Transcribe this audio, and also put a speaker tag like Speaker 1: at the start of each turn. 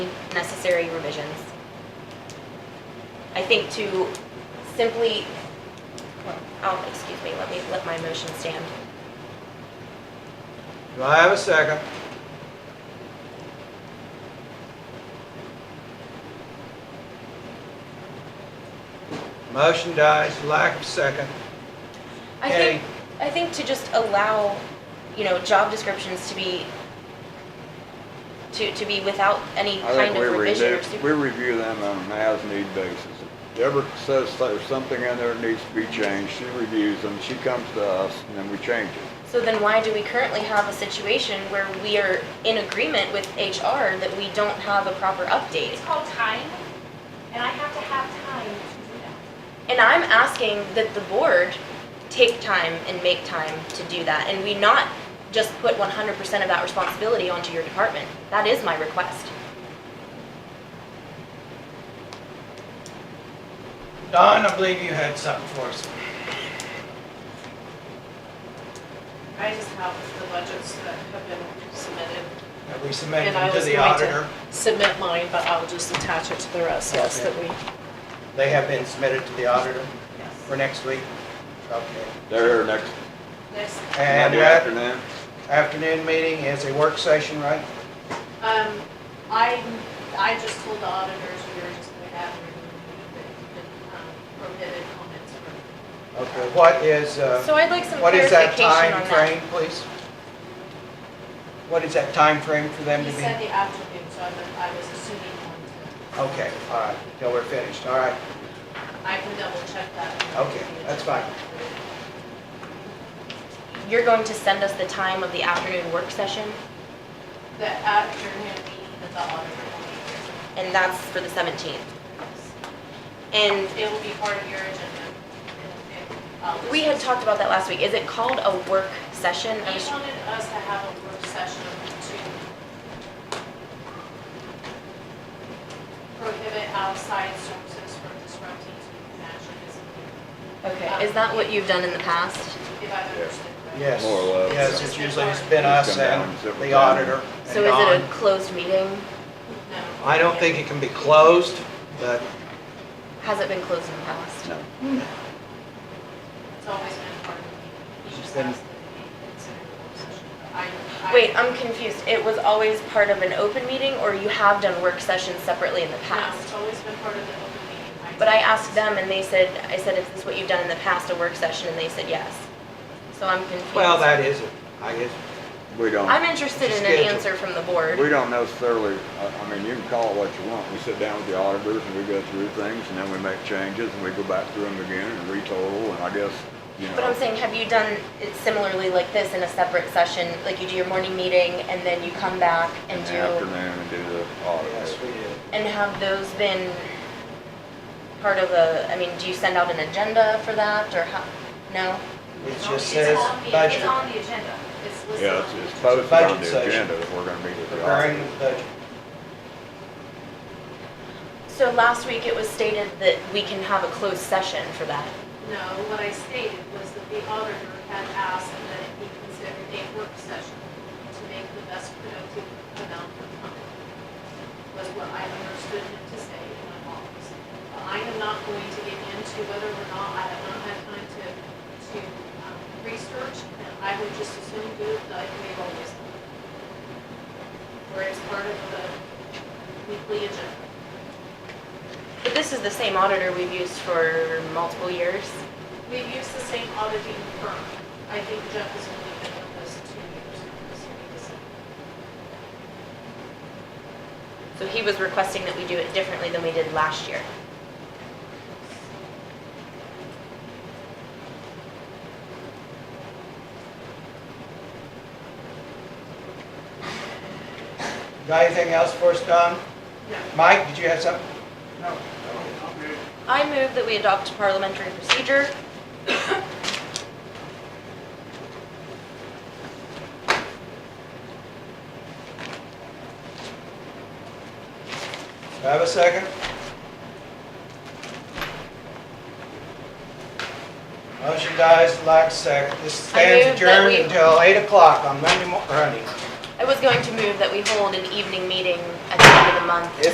Speaker 1: necessary revisions. I think to simply, well, oh, excuse me, let me let my motion stand.
Speaker 2: Do I have a second? Motion dies, lack of second.
Speaker 1: I
Speaker 2: Carrie?
Speaker 1: think, I think to just allow, you know, job descriptions to be, to, to be without any
Speaker 3: I think
Speaker 1: kind
Speaker 3: we
Speaker 1: of revision
Speaker 3: review,
Speaker 1: or
Speaker 3: we
Speaker 1: super.
Speaker 3: review them on an as-need basis. If Deborah says there's something in there that needs to be changed, she reviews them, she comes to us, and then we change it.
Speaker 1: So then why do we currently have a situation where we are in agreement with HR that we don't have a proper update?
Speaker 4: It's called time, and I have to have time to do that.
Speaker 1: And I'm asking that the board take time and make time to do that, and we not just put one hundred percent of that responsibility onto your department. That is my request.
Speaker 2: Don, I believe you had something for us.
Speaker 5: I just have the budgets that have been submitted.
Speaker 2: Have we submitted
Speaker 5: and I
Speaker 2: them to
Speaker 5: was
Speaker 2: the
Speaker 5: going to
Speaker 2: auditor?
Speaker 5: Submit mine, but I'll just attach it to the rest, yes, that we,
Speaker 2: They have been submitted to the auditor
Speaker 5: yes.
Speaker 2: for next week? Okay.
Speaker 3: They're here next
Speaker 5: Next,
Speaker 2: And
Speaker 3: Monday
Speaker 2: that
Speaker 3: afternoon.
Speaker 2: afternoon meeting is a work session, right?
Speaker 5: um, I, I just told the auditors we were just gonna have um, prohibited comments from.
Speaker 2: Okay, what is, uh,
Speaker 1: So I'd like some
Speaker 2: what is
Speaker 1: clarification on
Speaker 2: that
Speaker 1: that.
Speaker 2: time frame, please? What is that time frame for them to
Speaker 5: He
Speaker 2: be?
Speaker 5: said the afternoon, so I'm, I was assuming one
Speaker 2: Okay, all right, till we're finished, all right.
Speaker 5: to, I can double check that.
Speaker 2: Okay, that's fine.
Speaker 1: You're going to send us the time of the afternoon work session,
Speaker 5: The afternoon meeting that the auditor will be here.
Speaker 1: and that's for the seventeenth. And
Speaker 5: It will be part of your agenda. It- it- I'll just-
Speaker 1: we had talked about that last week. Is it called a work session? I
Speaker 5: He
Speaker 1: was-
Speaker 5: wanted us to have a work session to prohibit outside sources from disrupting to financial business,
Speaker 1: Okay, is that what you've done in the past?
Speaker 5: if I've understood correctly.
Speaker 2: Yes,
Speaker 3: More or less.
Speaker 2: yes, it's usually, it's been us
Speaker 3: Come down
Speaker 2: and
Speaker 3: several
Speaker 2: the
Speaker 3: times.
Speaker 2: auditor and
Speaker 1: So is it a
Speaker 2: Don.
Speaker 1: closed meeting?
Speaker 5: No.
Speaker 2: I don't think it can be closed, but
Speaker 1: Has it been closed in the past?
Speaker 3: No.
Speaker 5: It's always been part of the meeting. He just
Speaker 2: Then-
Speaker 5: asked that it be considered a work session. but I- I-
Speaker 1: Wait, uh, I'm confused. It was always part of an open meeting, or you have done work sessions separately in the
Speaker 5: No, it's
Speaker 1: past?
Speaker 5: always been part of the open meeting.
Speaker 1: But I asked them, and they said, I said, is this what you've done in the past, a work session? And they said yes. So I'm confused.
Speaker 2: Well, that is it, I guess.
Speaker 3: We
Speaker 1: I'm
Speaker 3: don't,
Speaker 1: interested
Speaker 2: Just
Speaker 1: in
Speaker 2: schedule.
Speaker 1: an answer from the
Speaker 3: we
Speaker 1: board.
Speaker 3: don't necessarily, I, I mean, you can call it what you want. We sit down with the auditors and we go through things, and then we make changes, and we go back through them again and retotal, and I guess, you know.
Speaker 1: But I'm saying, have you done it similarly like this in a separate session? Like you do your morning meeting, and then you come back
Speaker 3: In
Speaker 1: and
Speaker 3: the
Speaker 1: do,
Speaker 3: afternoon and do the audit.
Speaker 2: Yes, we did.
Speaker 1: and have those been part of a, I mean, do you send out an agenda for that, or how, no?
Speaker 2: It
Speaker 5: It's on-
Speaker 2: just says
Speaker 5: It's on the, it's
Speaker 2: budget,
Speaker 5: on the agenda. It's listed
Speaker 3: Yeah,
Speaker 5: on the
Speaker 3: it's, it's
Speaker 5: agenda.
Speaker 3: posted
Speaker 2: Budget
Speaker 3: on the
Speaker 2: session.
Speaker 3: agenda that we're gonna meet with the
Speaker 2: preparing
Speaker 3: auditor.
Speaker 2: the budget.
Speaker 1: So last week it was stated that we can have a closed session for that.
Speaker 5: No, what I stated was that the auditor had asked that it be considered a work session to make the best productive amount of time, was what I understood him to say in my office. But I am not going to get into whether or not I have not had time to, to um, research, and I would just assume do it like we've always done. Where it's part of the weekly agenda.
Speaker 1: But this is the same auditor we've used for multiple years.
Speaker 5: We've used the same auditing firm. I think Jeff has only been with us two years. so we just-
Speaker 1: So he was requesting that we do it differently than we did last year.
Speaker 2: Got anything else for us, Don?
Speaker 5: No.
Speaker 2: Mike, did you have something? No.
Speaker 1: I move that we adopt parliamentary procedure.
Speaker 2: Do I have a second? Motion dies, lack of second. This
Speaker 1: I
Speaker 2: stands
Speaker 1: move that
Speaker 2: adjourned
Speaker 1: we-
Speaker 2: until 8 o'clock on Monday morning.
Speaker 1: I was going to move that we hold an evening meeting at the end of the month